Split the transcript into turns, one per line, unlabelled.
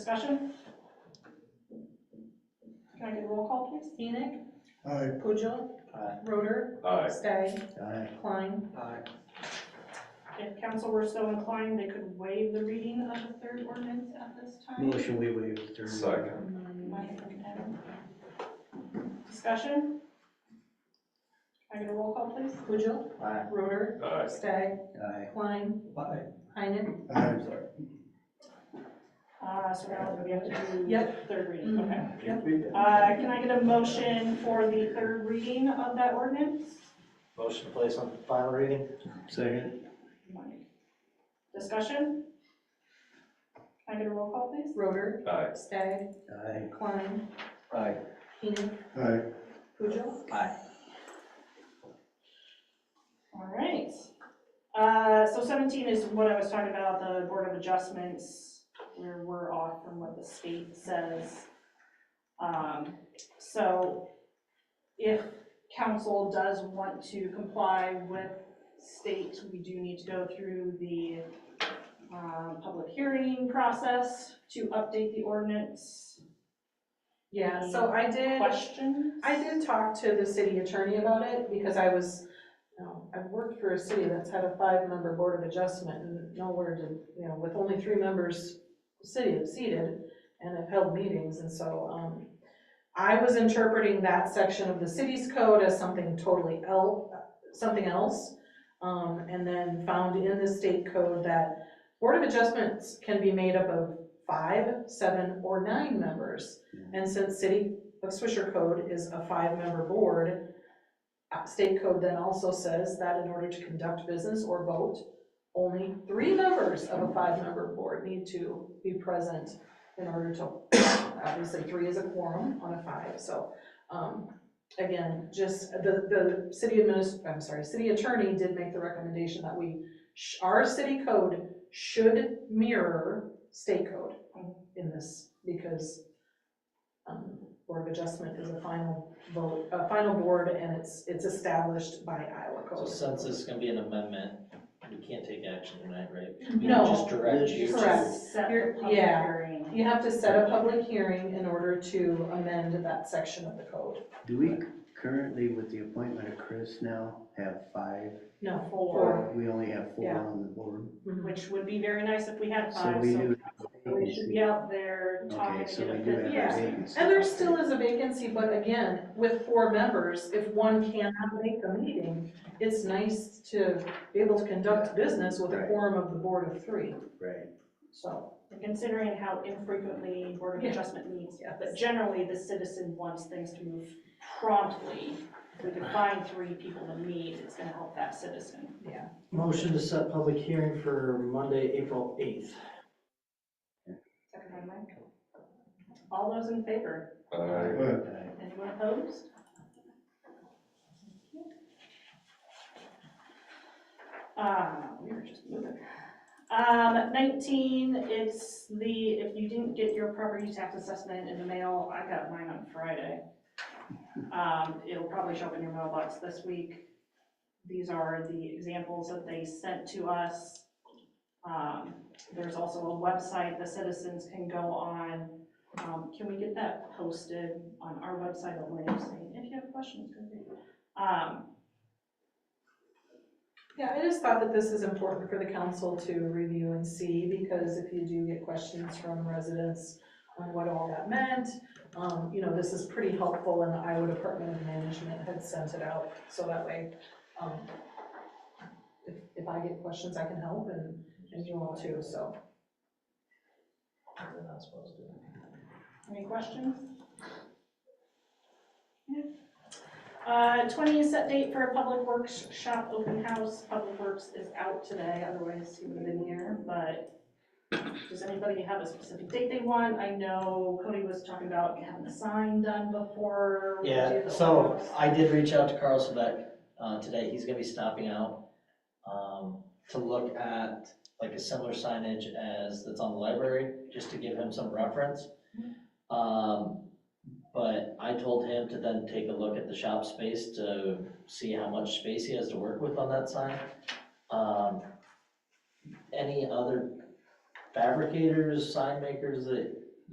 Discussion? Can I get a roll call, please?
Enoch,
Aye.
Pujil,
Aye.
Roder,
Aye.
Stagg,
Aye.
Klein.
Aye.
If council were so inclined, they could waive the reading of the third ordinance at this
Mm.
time.
Motion we waive the third.
Second.
By Adam. Discussion? Can I get a roll call, please?
Pujil,
Aye.
Roder,
Aye.
Stagg,
Aye.
Klein,
Aye.
Enoch.
Aye.
Uh, so now we have to do
Yep.
third reading,
Mhm.
okay. Uh, can I get a motion for the third reading of that ordinance?
Motion to place on final reading?
Second.
Mike. Discussion? Can I get a roll call, please?
Roder,
Aye.
Stagg,
Aye.
Klein,
Aye.
Enoch,
Aye.
Pujil.
All right. Uh, So 17 is what I was talking about, the Board of Adjustments, where we're off from what the state says. Um, So if council does want to comply with state, we do need to go through the um, public hearing process to update the ordinance.
Yeah, so I did,
Questions?
I did talk to the city attorney about it because I was, you know, I've worked for a city that's had a five-member board of adjustment and nowhere did, you know, with only three members, the city have seated and have held meetings and so, um, I was interpreting that section of the city's code as something totally el, something else. Um, and then found in the state code that board of adjustments can be made up of five, seven, or nine members. And since city of Swisher Code is a five-member board. Uh, State code then also says that in order to conduct business or vote, only three members of a five-member board need to be present in order to, obviously, three is a quorum on a five, so. um, Again, just, the, the city adminis, I'm sorry, city attorney did make the recommendation that we, sh- our city code should mirror state code in this, because um, Board of Adjustment is a final vote, a final board, and it's, it's established by Iowa
So
code.
since this is gonna be an amendment, we can't take action tonight, right? We
No.
Just direct you to.
Correct.
Set the public
Yeah.
hearing.
You have to set a public hearing in order to amend that section of the code.
Do we currently, with the appointment of Chris now, have five?
No,
Four.
four.
We only have four
Yeah.
on the board.
Mhm.
which would be very nice if we had
So
five,
we
so
do.
we should be out there talking
Okay,
to
so
get
we
a
do have
fifth.
a
Yeah.
vacancy.
And there still is a vacancy, but again, with four members, if one cannot make a meeting, it's nice to be able to conduct business with a
Right.
quorum of the board of three,
Right,
so.
Considering how infrequently Board of
Yeah.
Adjustment meets,
Yes.
but generally the citizen wants things to move promptly. If we can find three people to meet, it's gonna help that citizen.
Motion to set public hearing for Monday, April eighth.
Second by Mike. All those in favor?
Aye.
right.
Anyone opposed? Uh, we were just moving. Um, nineteen, it's the, if you didn't get your property tax assessment in the mail, I got mine on Friday. Um, it'll probably show up in your mailbox this week. These are the examples that they sent to us. Um, there's also a website the citizens can go on. Um, can we get that posted on our website at Williams, saying, if you have questions, go ahead. Um,
Yeah, I just thought that this is important for the council to review and see, because if you do get questions from residents on what all that meant, um, you know, this is pretty helpful, and the Iowa Department of Management had sent it out, so that way, um, if, if I get questions, I can help, and, and you all too, so.
They're not supposed to.
Any questions? Yeah. Uh, 20 is set date for a Public Works shop open house. Public Works is out today, otherwise he would have been here, but does anybody have a specific date they want? I know Cody was talking about having a sign done before. we do
Yeah,
the
so
open house.
I did reach out to Carl Sebeck, uh, today, he's gonna be stopping out, um, to look at like a similar signage as that's on the library, just to give him some reference.
Mm-hmm.
Um, but I told him to then take a look at the shop space to see how much space he has to work with on that sign. Um, any other fabricators, sign makers that